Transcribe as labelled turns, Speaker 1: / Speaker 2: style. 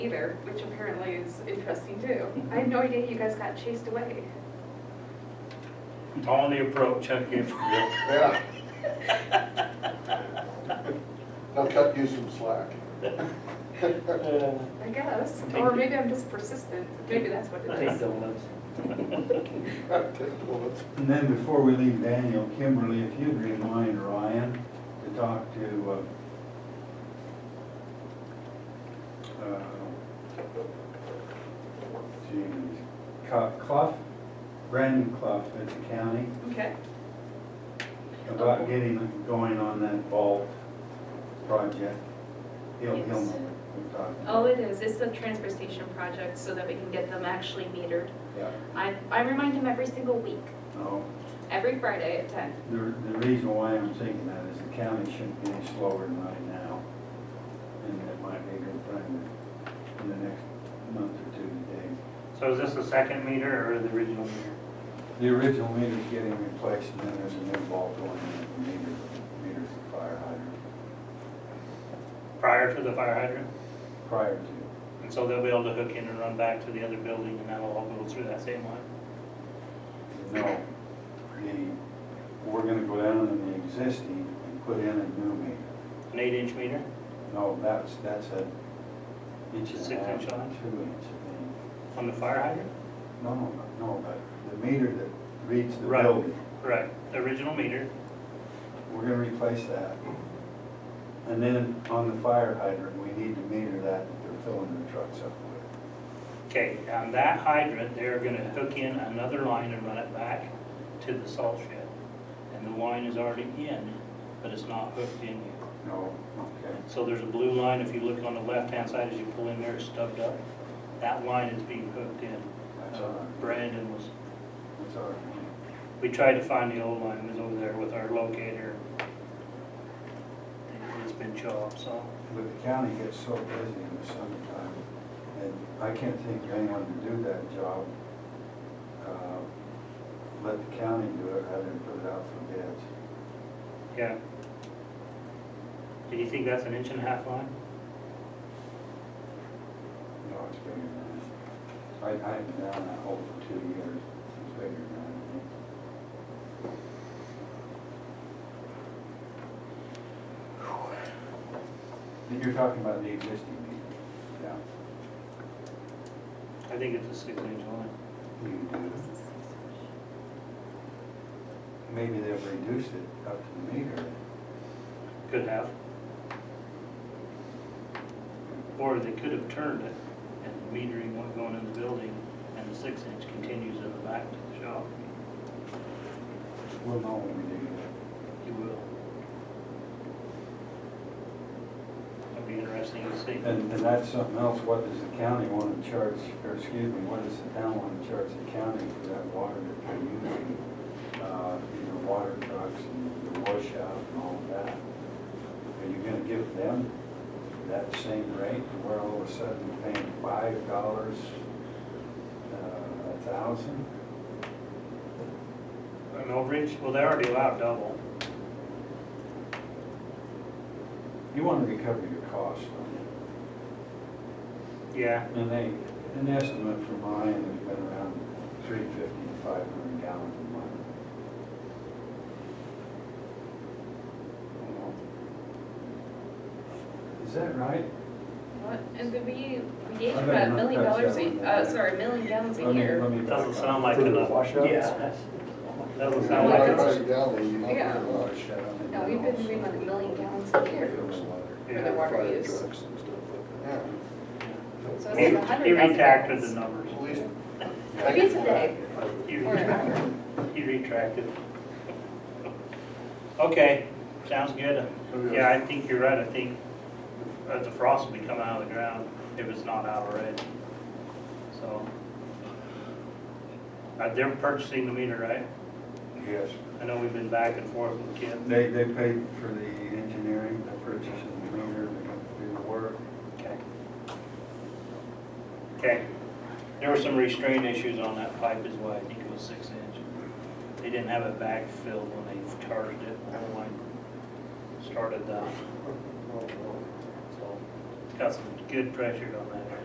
Speaker 1: either, which apparently is interesting too. I had no idea you guys got chased away.
Speaker 2: On the approach, I give.
Speaker 3: Yeah. Now cut you some slack.
Speaker 1: I guess, or maybe I'm just persistent, maybe that's what it
Speaker 4: Take
Speaker 1: is.
Speaker 4: donuts.
Speaker 3: Take bullets.
Speaker 5: And then before we leave Daniel, Kimberly, if you'd remind Ryan to talk to, uh, uh, geez, Cl- Clough, Brandon Clough at the county,
Speaker 1: Okay,
Speaker 5: about getting going on that vault project. He'll, he'll
Speaker 6: Yes.
Speaker 5: know what we're talking about.
Speaker 6: Oh, it is. It's the transfer station project so that we can get them actually metered.
Speaker 1: Oh.
Speaker 5: Yeah,
Speaker 6: I, I remind him every single week,
Speaker 5: no,
Speaker 6: every Friday at ten.
Speaker 5: the, the reason why I'm thinking that is the county shouldn't be any slower than right now. And it might be a good thing in the next month or two to
Speaker 2: So is this the second meter or the original meter?
Speaker 5: dig. The original meter's getting replaced and then there's a new vault going in, the meter, meter's the fire hydrant
Speaker 2: Prior to the fire hydrant?
Speaker 5: prior to.
Speaker 2: And so they'll be able to hook in and run back to the other building and that'll all go through that same line?
Speaker 5: No, the, we're gonna go down in the existing and put in a new meter.
Speaker 2: An eight inch meter?
Speaker 5: No, that's, that's a inch and a
Speaker 2: Six
Speaker 5: half,
Speaker 2: inch
Speaker 5: two inch,
Speaker 2: line?
Speaker 5: I think.
Speaker 2: On the fire hydrant?
Speaker 5: No, no, no, but the meter that reads the
Speaker 2: Right.
Speaker 5: building,
Speaker 2: Right, the original meter.
Speaker 5: we're gonna replace that. And then on the fire hydrant, we need to meter that that they're filling the trucks up with.
Speaker 2: Okay, on that hydrant, they're gonna hook in another line and run it back to the salt shed. And the line is already in, but it's not hooked in yet.
Speaker 5: No, okay,
Speaker 2: So there's a blue line, if you look on the left-hand side as you pull in there, it's stubbed up. That line is being hooked in.
Speaker 5: that's
Speaker 2: Uh,
Speaker 5: all right,
Speaker 2: Brandon was,
Speaker 5: that's all right.
Speaker 2: we tried to find the old line, it was over there with our locator. It's been chopped, so.
Speaker 5: But the county gets so busy in the summertime, and I can't think of anyone to do that job. Uh, Let the county do it rather than put it out for bids.
Speaker 2: Yeah. Do you think that's an inch and a half line?
Speaker 5: No, it's bigger than that. I, I have been down that hole for two years, it's bigger than that. And You're talking about the existing meter? Yeah.
Speaker 2: I think it's a six-inch line.
Speaker 5: You do. Maybe they'll reduce it up to the meter.
Speaker 2: Could have. Or they could have turned it and the metering went going in the building and the six inch continues in the back to the shop.
Speaker 5: We'll know when we do that.
Speaker 2: You will. It'll be interesting to see.
Speaker 5: And, and that's something else, what does the county want to charge, or excuse me, what does the town want to charge the county for that water that they're using? Uh, you know, water trucks and the washout and all of that. Are you gonna give them that same rate where all of a sudden you're paying five dollars, uh, a thousand?
Speaker 2: An overage, well, they already allowed double.
Speaker 5: You want to recover your costs, don't you?
Speaker 2: Yeah,
Speaker 5: And they, an estimate from mine has been around three fifty to five hundred gallons a month. Is that right?
Speaker 1: What, and then we, we gave
Speaker 5: I
Speaker 1: you
Speaker 5: better
Speaker 1: about a
Speaker 5: not
Speaker 1: million
Speaker 5: touch
Speaker 1: dollars
Speaker 5: that
Speaker 1: a,
Speaker 5: one.
Speaker 1: uh, sorry, a million gallons a
Speaker 5: Let me- let
Speaker 1: year.
Speaker 5: me back
Speaker 2: doesn't
Speaker 5: up.
Speaker 2: sound like
Speaker 3: For the
Speaker 2: enough.
Speaker 3: washouts?
Speaker 2: Yeah. Doesn't
Speaker 3: Yeah,
Speaker 2: sound like
Speaker 3: right
Speaker 2: it's,
Speaker 3: by the galley, you don't
Speaker 1: Yeah.
Speaker 3: get
Speaker 5: Oh,
Speaker 3: much.
Speaker 1: No, we've been doing like a million gallons a year,
Speaker 2: Yeah,
Speaker 1: for the water
Speaker 3: Fire
Speaker 1: use.
Speaker 3: trucks and stuff like that.
Speaker 1: So
Speaker 2: he,
Speaker 1: it's like a
Speaker 2: he
Speaker 1: hundred thousand
Speaker 2: retracted the
Speaker 1: gallons.
Speaker 2: numbers.
Speaker 3: At least- Oh,
Speaker 1: Maybe it's a day.
Speaker 2: He
Speaker 1: Or an
Speaker 2: retracted.
Speaker 1: hour.
Speaker 2: He retracted. Okay, sounds good. Yeah, I think you're right, I think uh, the frost will be coming out of the ground if it's not out already. So. Uh, They're purchasing the meter, right?
Speaker 5: Yes.
Speaker 2: I know we've been back and forth with Kim.
Speaker 5: They, they paid for the engineering, the purchase of the meter, they have to do the work.
Speaker 2: Okay. Okay. There were some restraint issues on that pipe as well, I think it was six inch. They didn't have it backfilled when they charged it, when the line started down.
Speaker 3: Oh, well.
Speaker 2: So, it's got some good pressure on that area.